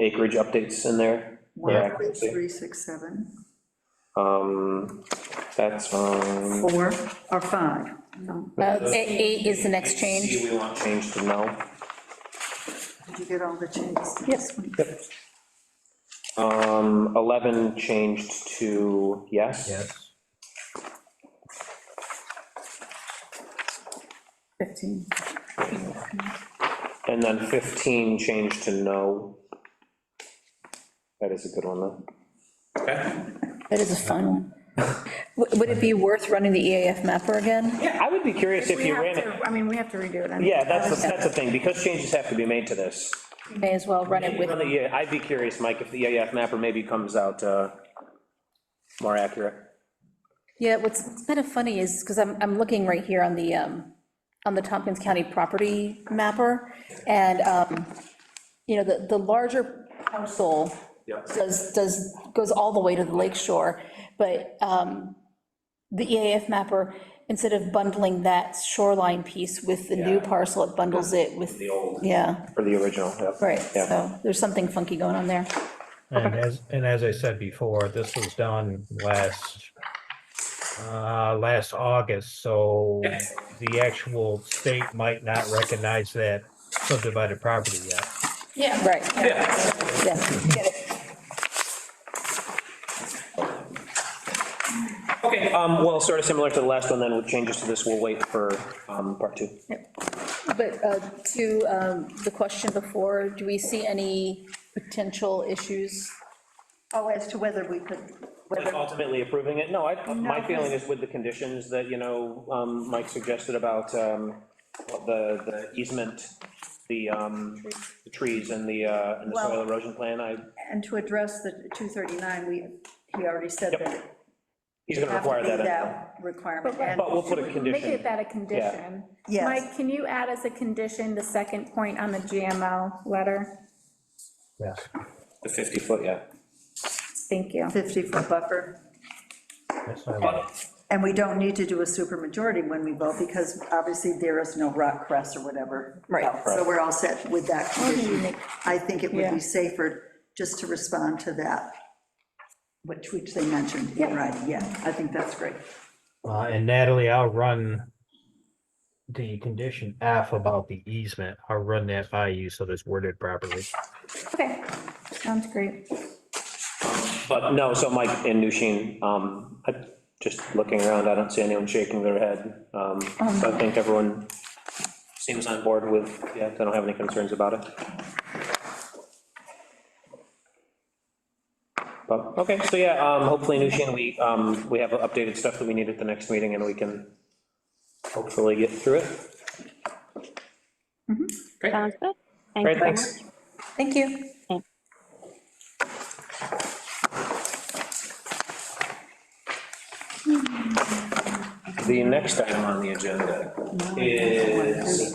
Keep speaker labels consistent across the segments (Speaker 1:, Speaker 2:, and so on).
Speaker 1: acreage updates in there. for
Speaker 2: One,
Speaker 1: accuracy.
Speaker 2: three, six, seven,
Speaker 1: Um, that's, um,
Speaker 2: four, or five? No.
Speaker 3: Uh, Eight is the next change.
Speaker 1: C we want changed to no.
Speaker 2: Did you get all the changes?
Speaker 3: Yes.
Speaker 1: Um, 11 changed to yes.
Speaker 4: Yes.
Speaker 3: 15.
Speaker 1: And then 15 changed to no. That is a good one, though.
Speaker 3: That is a fun one. W- Would it be worth running the EAF mapper again?
Speaker 1: Yeah, I would be curious if
Speaker 5: We
Speaker 1: you
Speaker 5: have
Speaker 1: ran it,
Speaker 5: to- I mean, we have to redo it. I mean,
Speaker 1: yeah, that's, the- that's the thing, because changes have to be made to this.
Speaker 3: May as well run it with,
Speaker 1: Yeah, I'd be curious, Mike, if the EAF mapper maybe comes out uh, more accurate.
Speaker 3: yeah, what's kind of funny is, because I'm, I'm looking right here on the, um, on the Tompkins County property mapper, and, um, you know, the, the larger parcel
Speaker 1: Yep.
Speaker 3: does, does, goes all the way to the lake shore, but um, the EAF mapper, instead of bundling that shoreline piece with the new
Speaker 1: Yeah.
Speaker 3: parcel, it bundles it with,
Speaker 1: The old,
Speaker 3: yeah,
Speaker 1: or the original, yeah.
Speaker 3: right,
Speaker 1: Yeah.
Speaker 3: so there's something funky going on there.
Speaker 4: And as, and as I said before, this was done last, uh, last August, so the actual state might not recognize that subdivided property yet.
Speaker 5: Yeah,
Speaker 3: Right. Yeah.
Speaker 1: Okay, um, well, sort of similar to the last one, then, with changes to this, we'll wait for um, part two.
Speaker 3: But uh, to um, the question before, do we see any potential issues?
Speaker 2: Oh, as to whether we could,
Speaker 1: Like
Speaker 2: whether,
Speaker 1: Ultimately approving it, no, I, my
Speaker 2: No.
Speaker 1: feeling is with the conditions that, you know, um, Mike suggested about, um, the, the easement, the, um, the trees and the, uh, and the soil
Speaker 2: Well-
Speaker 1: erosion plan, I,
Speaker 2: and to address the 239, we, he already said
Speaker 1: Yep.
Speaker 2: that. it
Speaker 1: he's gonna
Speaker 2: have to
Speaker 1: require
Speaker 2: be
Speaker 1: that.
Speaker 2: Requirement,
Speaker 5: But-
Speaker 2: and
Speaker 1: But we'll put a
Speaker 5: make
Speaker 1: condition,
Speaker 5: it that a condition.
Speaker 2: Yes.
Speaker 5: Mike, can you add as a condition the second point on the GMO letter?
Speaker 4: Yes.
Speaker 1: the 50 foot, yeah.
Speaker 5: Thank you.
Speaker 2: 50-foot buffer.
Speaker 4: That's what I want.
Speaker 2: And we don't need to do a supermajority when we vote, because obviously there is no rock crest or whatever.
Speaker 3: Right.
Speaker 2: So we're all set with that condition. I think it would
Speaker 5: Yeah.
Speaker 2: be safer just to respond to that, which which they mentioned, in writing. yeah, I think that's great.
Speaker 4: Uh, and Natalie, I'll run the condition F about the easement. I'll run that by you so that's worded properly.
Speaker 5: Okay, sounds great.
Speaker 1: But no, so Mike and Nushin, um, I, just looking around, I don't see anyone shaking their head. Um, so I think everyone seems on board with, yeah, they don't have any concerns about it. But, okay, so yeah, um, hopefully Nushin, we, um, we have updated stuff that we need at the next meeting and we can hopefully get through it.
Speaker 6: Sounds good. Thank
Speaker 1: Mm-hmm. Great,
Speaker 6: you very
Speaker 1: thanks.
Speaker 6: much.
Speaker 3: Thank you.
Speaker 1: The next item on the agenda is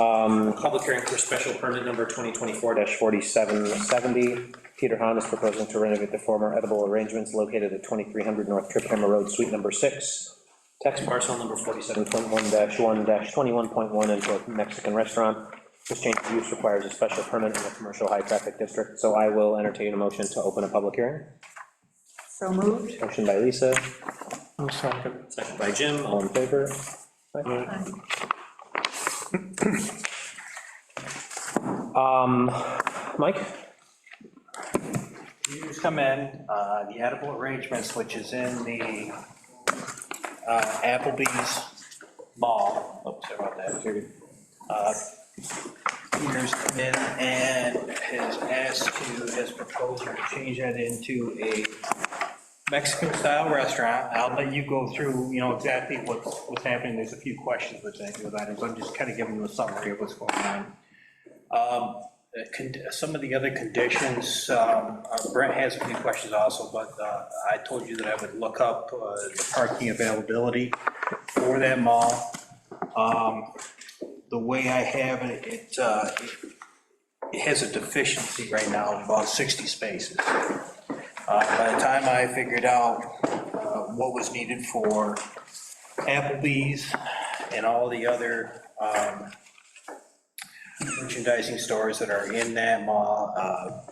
Speaker 1: um, public hearing for special permit number 2024-4770. Peter Hahn is proposing to renovate the former edible arrangements located at 2300 North Trip Hammer Road, Suite Number 6, tax parcel number 47.1-1-21.1 into a Mexican restaurant. This change of use requires a special permit in a commercial high-traffic district, so I will entertain a motion to open a public hearing.
Speaker 2: So moved.
Speaker 1: Motion by Lisa. second. Second by Jim, all in favor? Um, Mike?
Speaker 7: You just come in, uh, the edible arrangements, which is in the uh, Applebee's Mall, oops, sorry about that. Uh, Peter's come in and has asked to, has proposed to change that into a Mexican-style restaurant. I'll let you go through, you know, exactly what's, what's happening. There's a few questions with that, with items. I'm just kind of giving you a summary of what's going on. Um, the con- Some of the other conditions, um, uh, Brent has a few questions also, but uh, I told you that I would look up uh, the parking availability for that mall. Um, The way I have it, it, uh, it- it has a deficiency right now of about 60 spaces. Uh, By the time I figured out uh, what was needed for Applebee's and all the other um, merchandising stores that are in that mall, uh,